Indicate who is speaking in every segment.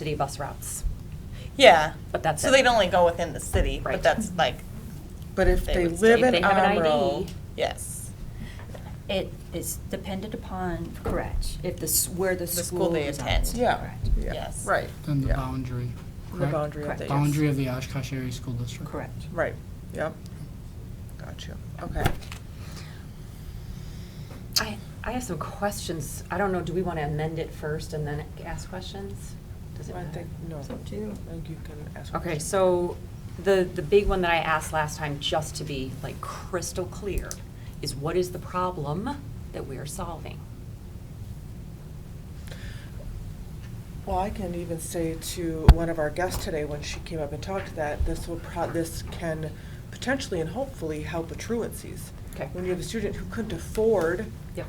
Speaker 1: city bus routes.
Speaker 2: Yeah.
Speaker 1: But that's
Speaker 2: So
Speaker 1: it.
Speaker 2: they'd only go within the city,
Speaker 1: Right.
Speaker 2: but that's like,
Speaker 3: But if
Speaker 2: They
Speaker 3: they
Speaker 2: would
Speaker 3: live
Speaker 1: If
Speaker 3: in
Speaker 1: they have an
Speaker 3: Amro,
Speaker 1: ID,
Speaker 2: yes.
Speaker 4: It is dependent upon, correct, if the, s- where the
Speaker 2: The
Speaker 4: school
Speaker 2: school they
Speaker 4: is
Speaker 2: attend.
Speaker 4: at,
Speaker 3: yeah,
Speaker 4: correct.
Speaker 3: yeah,
Speaker 2: Yes.
Speaker 3: right.
Speaker 5: Then the
Speaker 3: yeah.
Speaker 5: boundary,
Speaker 3: The
Speaker 5: correct?
Speaker 3: boundary of
Speaker 4: Correct.
Speaker 3: the. yes.
Speaker 5: Boundary of the Oshkosh Area School District.
Speaker 4: Correct.
Speaker 3: Right, yep. Got you, okay.
Speaker 1: I, I have some questions. I don't know, do we want to amend it first and then ask questions? Does it
Speaker 3: I
Speaker 1: matter?
Speaker 3: think, no, I
Speaker 4: It's up to you.
Speaker 3: think you can ask.
Speaker 1: Okay, so the, the big one that I asked last time, just to be like crystal clear, is what is the problem that we are solving?
Speaker 3: Well, I can even say to one of our guests today, when she came up and talked to that, this will pro, this can potentially and hopefully help with truancies.
Speaker 1: Okay.
Speaker 3: When you have a student who couldn't afford,
Speaker 1: Yep.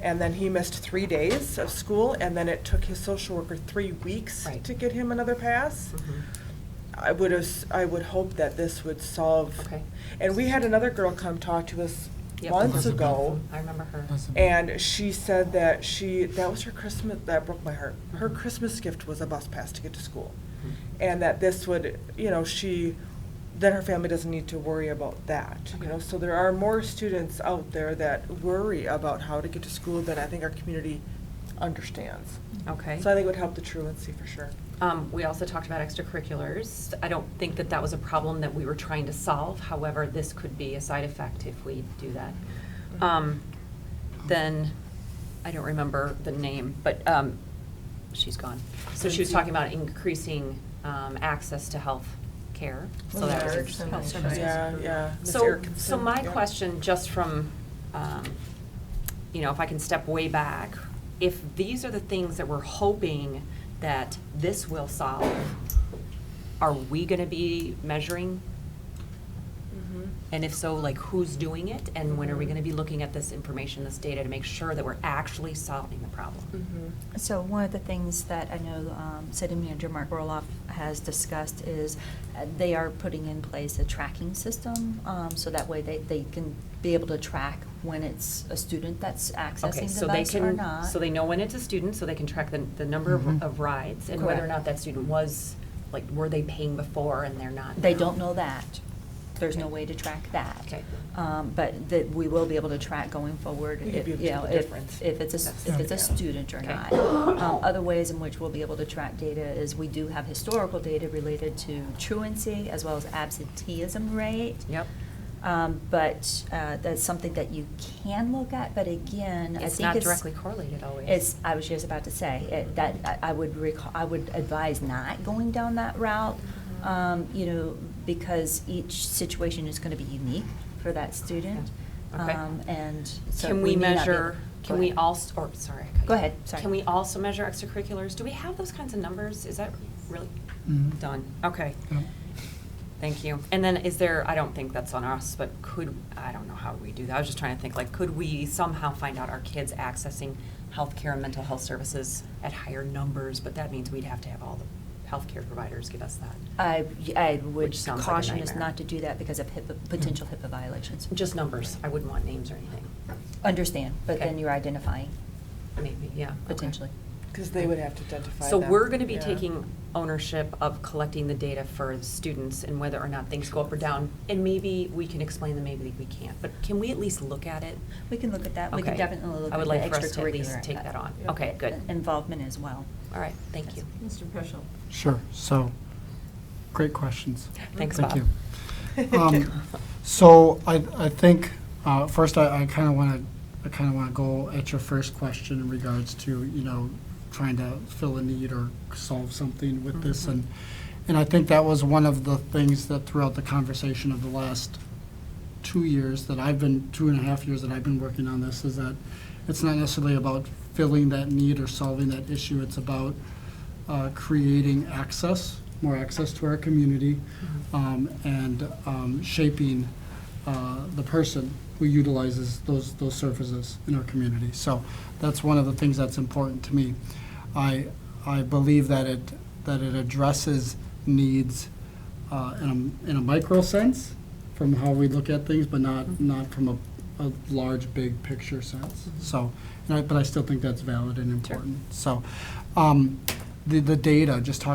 Speaker 3: and then he missed three days of school, and then it took his social worker three weeks
Speaker 1: Right.
Speaker 3: to get him another pass.
Speaker 1: Mm-hmm.
Speaker 3: I would, as- I would hope that this would solve.
Speaker 1: Okay.
Speaker 3: And we had another girl come talk to us
Speaker 1: Yep.
Speaker 3: months
Speaker 5: Elizabeth.
Speaker 3: ago,
Speaker 1: I remember her.
Speaker 5: That's the-
Speaker 3: and she said that she, that was her Christmas, that broke my heart. Her
Speaker 1: Mm-hmm.
Speaker 3: Christmas gift was a bus pass to get to school. And that this would, you know, she, then her family doesn't need to worry about that, you know? So there are more students out there that worry about how to get to school than I think our community understands.
Speaker 1: Okay.
Speaker 3: So I think it would help the truancy for sure.
Speaker 1: Um, we also talked about extracurriculars. I don't think that that was a problem that we were trying to solve. However, this could be a side effect if we do that. Um, then, I don't remember the name, but, um, she's gone. So she was talking about increasing, um, access to health care. So that was
Speaker 2: Large
Speaker 1: interesting.
Speaker 2: and-
Speaker 4: services.
Speaker 3: Yeah, yeah. Ms.
Speaker 1: So,
Speaker 3: Erickson,
Speaker 1: so my
Speaker 3: yeah.
Speaker 1: question, just from, um, you know, if I can step way back, if these are the things that we're hoping that this will solve, are we gonna be measuring?
Speaker 3: Mhm.
Speaker 1: And if so, like, who's doing it? And when are we gonna be looking at this information, this data, to make sure that we're actually solving the problem?
Speaker 3: Mhm.
Speaker 4: So one of the things that I know um, City Manager Mark Roloff has discussed is uh, they are putting in place a tracking system, um, so that way they, they can be able to track when it's a student that's
Speaker 1: Okay,
Speaker 4: accessing the
Speaker 1: so they
Speaker 4: bus or
Speaker 1: can,
Speaker 4: not.
Speaker 1: so they know when it's a student, so they can track the, the number of
Speaker 5: Mhm.
Speaker 1: of rides, and whether or
Speaker 4: Correct.
Speaker 1: not that student was, like, were they paying before and they're not
Speaker 4: They
Speaker 1: now?
Speaker 4: don't know that. There's no
Speaker 1: Okay.
Speaker 4: way to track that.
Speaker 1: Okay.
Speaker 4: Um, But that we will be able to track going forward,
Speaker 3: We could
Speaker 4: if,
Speaker 3: be
Speaker 4: you
Speaker 3: able to
Speaker 4: know,
Speaker 3: tell the
Speaker 4: if,
Speaker 3: difference.
Speaker 4: if it's a,
Speaker 3: That's
Speaker 4: if it's
Speaker 3: the-
Speaker 4: a student or
Speaker 1: Okay.
Speaker 4: not. Um, Other ways in which we'll be able to track data is we do have historical data related to truancy as well as absenteeism rate.
Speaker 1: Yep.
Speaker 4: Um, But uh, that's something that you can look at, but again, I think it's.
Speaker 1: It's not directly correlated always.
Speaker 4: It's, I was just about to say, it- that, I- I would recall, I would advise not going down that route,
Speaker 1: Mm-hmm.
Speaker 4: um, you know, because each situation is gonna be unique for that student.
Speaker 1: Yeah. Okay.
Speaker 4: Um, And so
Speaker 1: Can we
Speaker 4: may not be-
Speaker 1: measure,
Speaker 4: Go
Speaker 1: can we
Speaker 4: ahead.
Speaker 1: also, or, sorry. I cut you
Speaker 4: Go
Speaker 1: off.
Speaker 4: ahead, sorry.
Speaker 1: Can we also measure extracurriculars? Do we have those kinds of numbers? Is that really
Speaker 5: Mhm.
Speaker 1: done? Okay,
Speaker 5: Yeah.
Speaker 1: thank you. And then is there, I don't think that's on us, but could, I don't know how we do that. I was just trying to think, like, could we somehow find out our kids accessing healthcare and mental health services at higher numbers? But that means we'd have to have all the healthcare providers give us that.
Speaker 4: I, I would
Speaker 1: Which sounds like a
Speaker 4: caution us
Speaker 1: nightmare. Mm-hmm.
Speaker 4: not to do that because of HIPAA, potential HIPAA violations.
Speaker 1: Just numbers. I wouldn't want names or anything.
Speaker 4: Understand, but
Speaker 1: Okay.
Speaker 4: then you're identifying
Speaker 1: Maybe, yeah. okay.
Speaker 4: potentially.
Speaker 3: Because they would have to identify
Speaker 1: So
Speaker 3: them.
Speaker 1: we're gonna be
Speaker 3: Yeah.
Speaker 1: taking ownership of collecting the data for the students and whether or not things go up or down. And maybe we can explain them, maybe we can't, but can we at least look at it?
Speaker 4: We can look at that, we can
Speaker 1: Okay.
Speaker 4: definitely look
Speaker 1: I
Speaker 4: at
Speaker 1: would
Speaker 4: the
Speaker 1: like for us to at least
Speaker 4: extracurricular,
Speaker 1: take that
Speaker 4: uh,
Speaker 1: on.
Speaker 3: Yeah.
Speaker 1: Okay, good.
Speaker 4: Involvement as well.
Speaker 1: All right, thank you.
Speaker 6: Mr. Peschel.
Speaker 5: Sure, so, great questions.
Speaker 1: Thanks,
Speaker 5: Thank
Speaker 1: Bob.
Speaker 5: you. Um, So I, I think, uh, first, I, I kind of want to, I kind of want to go at your first question in regards to, you know, trying to fill a need or solve something with
Speaker 3: Mm-hmm.
Speaker 5: this. And, and I think that was one of the things that throughout the conversation of the last two years that I've been, two and a half years that I've been working on this, is that it's not necessarily about filling that need or solving that issue. It's about uh, creating access, more access to our community, um, and um, shaping uh, the person who utilizes those, those surfaces in our community. So that's one of the things that's important to me. I, I believe that it, that it addresses needs uh, in a, in a micro sense from how we look at things, but not, not from a, a large, big picture sense. So, and I- but I still think that's valid and important. So, um, the, the data, just talking